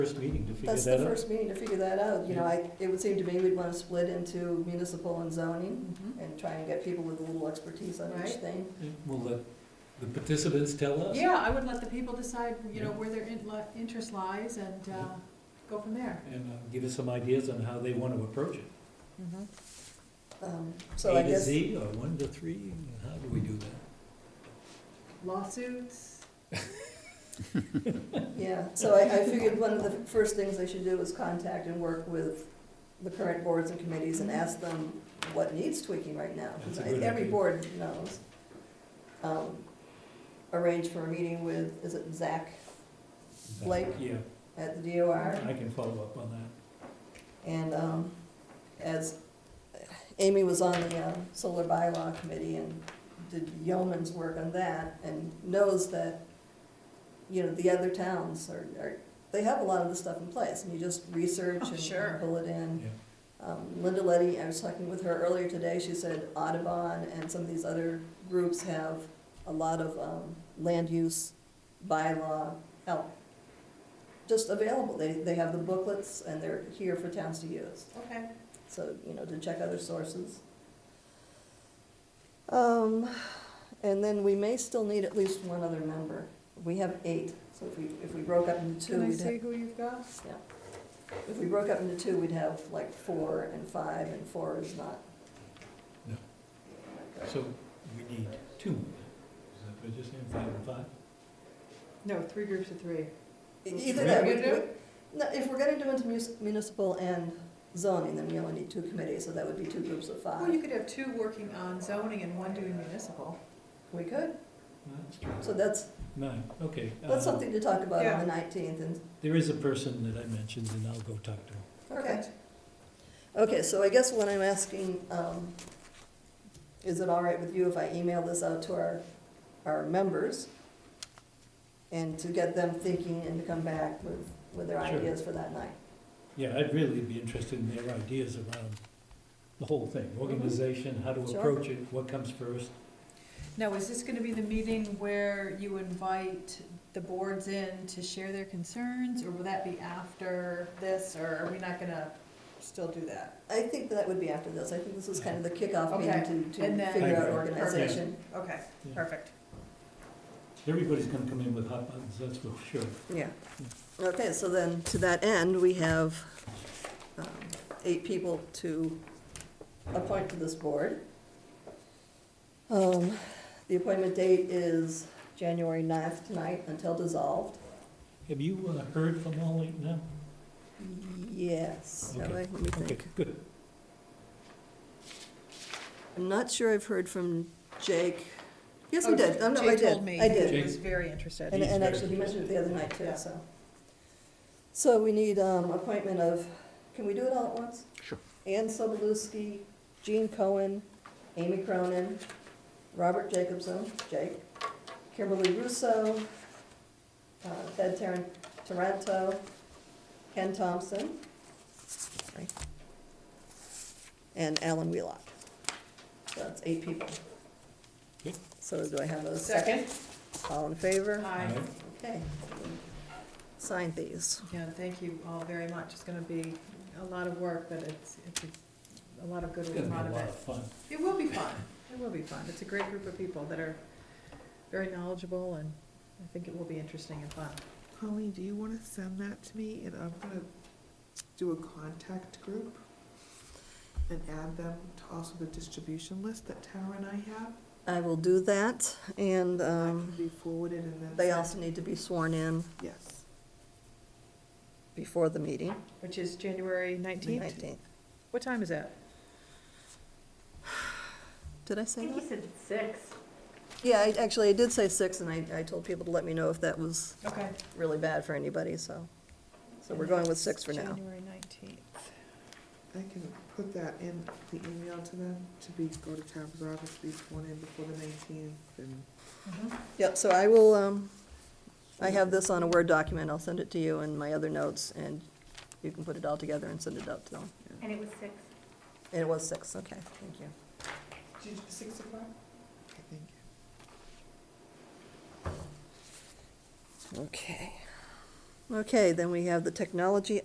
first meeting to figure That's the that out. first meeting to figure that out, you know, I, it would seem to me we'd wanna split into municipal and zoning Mm-hmm. and try and get people with a little expertise on each Right. thing. We'll let the participants tell us. Yeah, I would let the people decide, you know, where their in- li- interest lies and uh, go from there. And uh, give us some ideas on how they want to approach it. Mm-hmm. Um, So A I to guess, Z or one to three, how do we do that? Lawsuits, yeah, so I, I figured one of the first things I should do is contact and work with the current boards and committees and ask them what needs tweaking right now. That's a good Every idea. board knows. Um, Arrange for a meeting with, is it Zach Blake? Yeah, at the DOR? I can follow up on And um, as Amy was on the um, solar bylaw committee and did yeoman's work on that and knows that, you know, the other towns are, are, they have a lot of this stuff in place and you just research Oh, and- sure. and pull it that, in. yeah. Um, Linda Letty, I was talking with her earlier today, she said Audubon and some of these other groups have a lot of um, land use bylaw help just available. They, they have the booklets and they're here for towns to use, okay. so, you know, to check other sources. Um, and then we may still need at least one other member. We have eight, so if we, if we broke up into two, Can I we'd have, see who you've got? if we broke up into two, we'd have like four and five, and four is not. No. So we need two. Is that what you're saying, five and five? No, three groups of three. E-, Either that, we, Three. we- no, if we're gonna do into mus- municipal and zoning, then we only need two committees, so that would be two groups of Well, you five. could have two working on zoning and one doing municipal. We could, That's true. so that's, Nine, okay. that's Uh, something to talk about on the nineteenth, and There is a person that I mentioned and I'll go talk to him. Okay, okay, so I guess what I'm asking, um, is it all right with you if I email this out to our, our members? And to get them thinking and to come back with, with their Sure. ideas for that night? Yeah, I'd really be interested in their ideas around the whole thing, organization, how to Sure. approach it, what comes first. Now, is this gonna be the meeting where you invite the boards in to share their concerns, or will that be after this, or are we not gonna still do that? I think that would be after this, I think this is kind of the kickoff Okay, meeting to, and to then- figure out Perfect. organization. Okay, Yeah. perfect. Everybody's gonna come in with hot buttons, that's for sure. Yeah. Okay, so then, to that end, we have, um, eight people to appoint to this board. Um, the appointment date is January 9th tonight until dissolved. Have you uh, heard from all eight now? Yes, now Okay, wait, let me Okay, think. good. I'm not sure I've heard from Jake. Yes, I Oh, did, oh, no, I Jay told did, me I He did. Jake- was very And, interested. He's and very actually, he mentioned it the other night too, Yeah. so. So we need, um, appointment of, can we do it all at once? Sure. Ann Sobolewski, Jean Cohen, Amy Cronin, Robert Jacobson, Jake, Kimberly Russo, uh, Ted Taran- Taranto, Ken Thompson, sorry, and Alan Wheelock. So that's eight people. Okay. So do I have a second? All in favor? Hi. Aye. Okay. Sign these. Yeah, thank you all very much. It's gonna be a lot of work, but it's, it's a- a lot of good It's will gonna come out be a of lot it. of fun. It will be fun. It will be fun. It's a great group of people that are very knowledgeable and I think it will be interesting and fun. Colleen, do you want to send that to me and I'm gonna do a contact group and add them to also the distribution list that Tara and I have? I will do that, and That um, can be forwarded and then. they sent. also need to be sworn in Yes. before the meeting, Which is January the nineteenth? 19th. What time is that? Did I say that? said six. Yeah, I- actually, I did say 6, and I I told people to let me know if that was Okay. really bad for anybody, so, so we're going with 6 for now. January nineteenth. I can put that in the email to them to be, go to Tara's office, be sworn in before the nineteenth and. Yep, so I will, um, I have this on a Word document, I'll send it to you and my other notes, and you can put it all together and send it out to them. And it was six. And it was 6, okay, thank you. Did you- Six o'clock? I think. Okay. Okay, then we have the technology